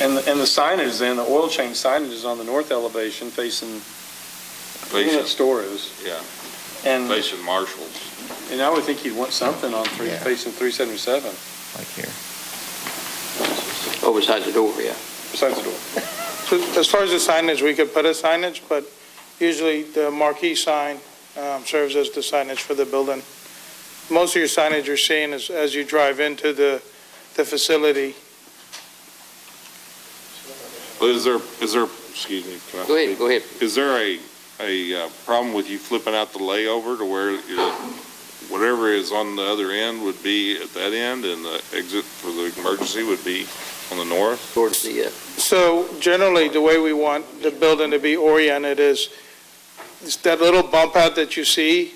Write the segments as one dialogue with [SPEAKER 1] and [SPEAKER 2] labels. [SPEAKER 1] And, the- and the signage then, the oil change signage is on the north elevation facing, even at
[SPEAKER 2] Facing,
[SPEAKER 1] store is.
[SPEAKER 2] yeah,
[SPEAKER 1] And,
[SPEAKER 2] facing Marshall's.
[SPEAKER 1] and I would think you'd want something on three,
[SPEAKER 3] Yeah.
[SPEAKER 1] facing 377,
[SPEAKER 3] like here.
[SPEAKER 4] Oh, besides the door, yeah.
[SPEAKER 1] besides the door.
[SPEAKER 5] So As far as the signage, we could put a signage, but usually the marquee sign um, serves as the signage for the building. Most of your signage you're seeing is as you drive into the, the facility.
[SPEAKER 2] But is there, is there, excuse me. can I
[SPEAKER 4] Go ahead,
[SPEAKER 2] speak?
[SPEAKER 4] go ahead.
[SPEAKER 2] Is there a, a uh, problem with you flipping out the layover to where your- whatever is on the other end would be at that end and the exit for the emergency would be on the north?
[SPEAKER 4] Towards the, uh,
[SPEAKER 5] So generally, the way we want the building to be oriented is, is that little bump out that you see,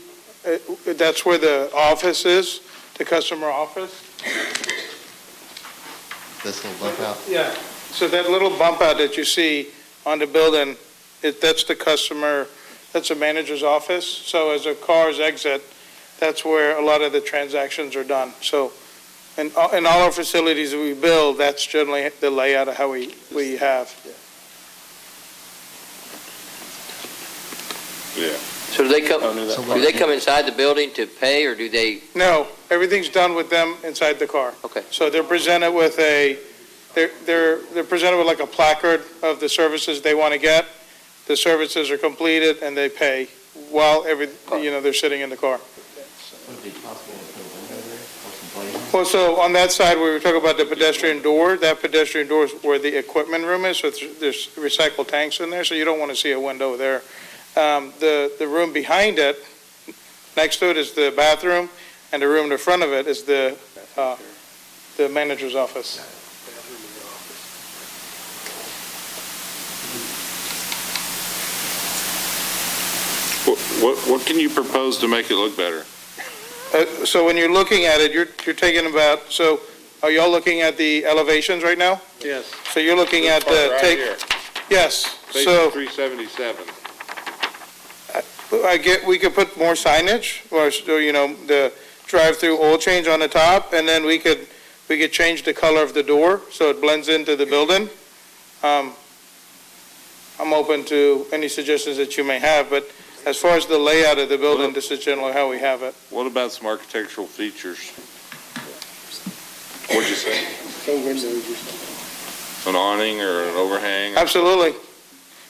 [SPEAKER 5] uh, that's where the office is, the customer office.
[SPEAKER 3] This little bump out,
[SPEAKER 5] Yeah, so that little bump out that you see on the building, it, that's the customer, that's a manager's office. So as the cars exit, that's where a lot of the transactions are done. So in, all- in all our facilities we build, that's generally the layout of how we, we have.
[SPEAKER 2] Yeah.
[SPEAKER 4] so do they come,
[SPEAKER 1] Oh, no, that-
[SPEAKER 4] do they come inside the building to pay, or do they,
[SPEAKER 5] No, everything's done with them inside the car.
[SPEAKER 4] Okay.
[SPEAKER 5] So they're presented with a, they're, they're, they're presented with like a placard of the services they want to get. The services are completed and they pay while every, you know, they're sitting in the car.
[SPEAKER 3] would it be possible to put a window there, or some glazing?
[SPEAKER 5] Well, so on that side, we were talking about the pedestrian door, that pedestrian door is where the equipment room is, so it's- there's recycled tanks in there, so you don't want to see a window there. Um, The, the room behind it, next to it is the bathroom, and the room in front of it is the, uh, the manager's office.
[SPEAKER 2] What, what, what can you propose to make it look better?
[SPEAKER 5] Uh, So when you're looking at it, you're, you're taking about, so are y'all looking at the elevations right now?
[SPEAKER 1] Yes.
[SPEAKER 5] So you're looking at the,
[SPEAKER 2] Right
[SPEAKER 5] take,
[SPEAKER 2] here,
[SPEAKER 5] yes,
[SPEAKER 2] Facing
[SPEAKER 5] so.
[SPEAKER 2] 377.
[SPEAKER 5] I get, we could put more signage, or, so, you know, the drive-through oil change on the top, and then we could, we could change the color of the door, so it blends into the building. Um, I'm open to any suggestions that you may have, but as far as the layout of the building, this is generally how we have it.
[SPEAKER 2] What about some architectural features? What'd you say? An awning or an overhang?
[SPEAKER 5] Absolutely.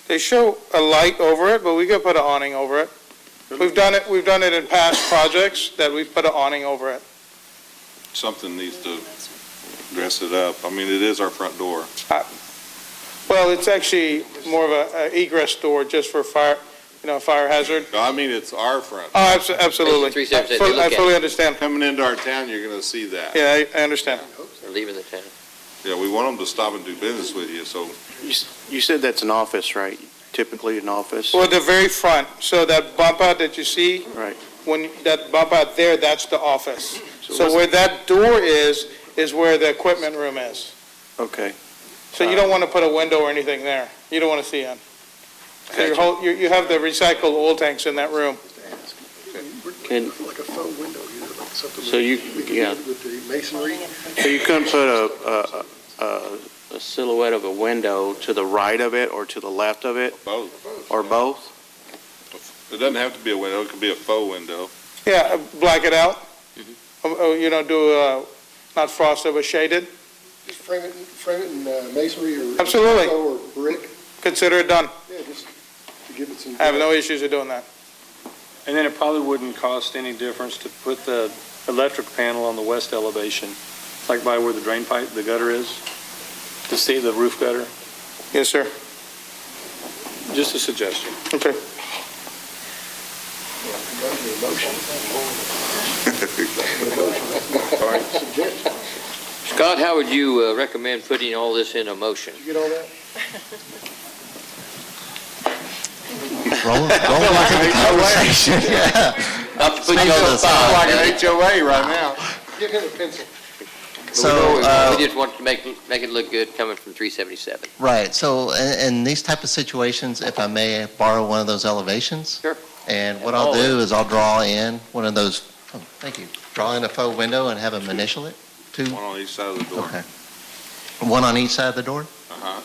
[SPEAKER 5] They show a light over it, but we could put an awning over it. We've done it, we've done it in past projects, that we've put an awning over it.
[SPEAKER 2] Something needs to dress it up. I mean, it is our front door.
[SPEAKER 5] Well, it's actually more of a a egress door just for fire, you know, fire hazard.
[SPEAKER 2] No, I mean, it's our front.
[SPEAKER 5] Oh, abso- absolutely.
[SPEAKER 4] Three steps that they
[SPEAKER 5] I fully-
[SPEAKER 4] look
[SPEAKER 5] I
[SPEAKER 4] at.
[SPEAKER 5] fully understand.
[SPEAKER 2] Coming into our town, you're gonna see that.
[SPEAKER 5] Yeah, I I understand.
[SPEAKER 4] or leaving the town?
[SPEAKER 2] Yeah, we want them to stop and do business with you, so
[SPEAKER 6] You said that's an office, right? Typically an office?
[SPEAKER 5] Well, the very front, so that bump out that you see.
[SPEAKER 6] Right.
[SPEAKER 5] When, that bump out there, that's the office. So
[SPEAKER 6] what's-
[SPEAKER 5] where that door is, is where the equipment room is.
[SPEAKER 6] Okay.
[SPEAKER 5] So you don't want to put a window or anything there. You don't want to see in. So your whole, you, you have the recycled oil tanks in that room.
[SPEAKER 6] Can-
[SPEAKER 7] Like a faux window, you know, like something.
[SPEAKER 6] So you-
[SPEAKER 7] we could
[SPEAKER 6] yeah.
[SPEAKER 7] do With the masonry.
[SPEAKER 6] So you couldn't put a, a- a, a silhouette of a window to the right of it or to the left of it
[SPEAKER 2] both.
[SPEAKER 6] or both?
[SPEAKER 2] It doesn't have to be a window, it could be a faux window.
[SPEAKER 5] Yeah, black it out.
[SPEAKER 6] Mm-hmm.
[SPEAKER 5] Oh, oh, You know, do, uh, not frosted, but shaded.
[SPEAKER 7] Just frame it, frame it in uh, masonry or.
[SPEAKER 5] Absolutely.
[SPEAKER 7] Or brick,
[SPEAKER 5] Consider it done.
[SPEAKER 7] yeah, just to give it some.
[SPEAKER 5] I have no issues with doing that.
[SPEAKER 1] And then it probably wouldn't cost any difference to put the electric panel on the west elevation, like by where the drain pipe, the gutter is, to see the roof gutter.
[SPEAKER 5] Yes, sir.
[SPEAKER 1] Just a suggestion.
[SPEAKER 5] Okay.
[SPEAKER 7] Suggestion,
[SPEAKER 4] Scott, how would you uh, recommend putting all this in a motion?
[SPEAKER 7] you get all that?
[SPEAKER 3] Rolling, rolling like a conversation, yeah.
[SPEAKER 4] Not to put you
[SPEAKER 3] Sounds
[SPEAKER 4] on the
[SPEAKER 3] like a-
[SPEAKER 4] spot.
[SPEAKER 2] HOA right now.
[SPEAKER 7] Give him a pencil.
[SPEAKER 4] but we know
[SPEAKER 3] So,
[SPEAKER 4] we-
[SPEAKER 3] uh,
[SPEAKER 4] We just want to make, make it look good coming from 377.
[SPEAKER 3] Right, so in, in these type of situations, if I may borrow one of those elevations?
[SPEAKER 4] Sure.
[SPEAKER 3] And what
[SPEAKER 4] And
[SPEAKER 3] I'll
[SPEAKER 4] all
[SPEAKER 3] do is I'll draw in one of those, oh, thank you, draw in a faux window and have them initial it, two,
[SPEAKER 2] One on each side of the door.
[SPEAKER 3] okay. One on each side of the door?
[SPEAKER 2] Uh-huh.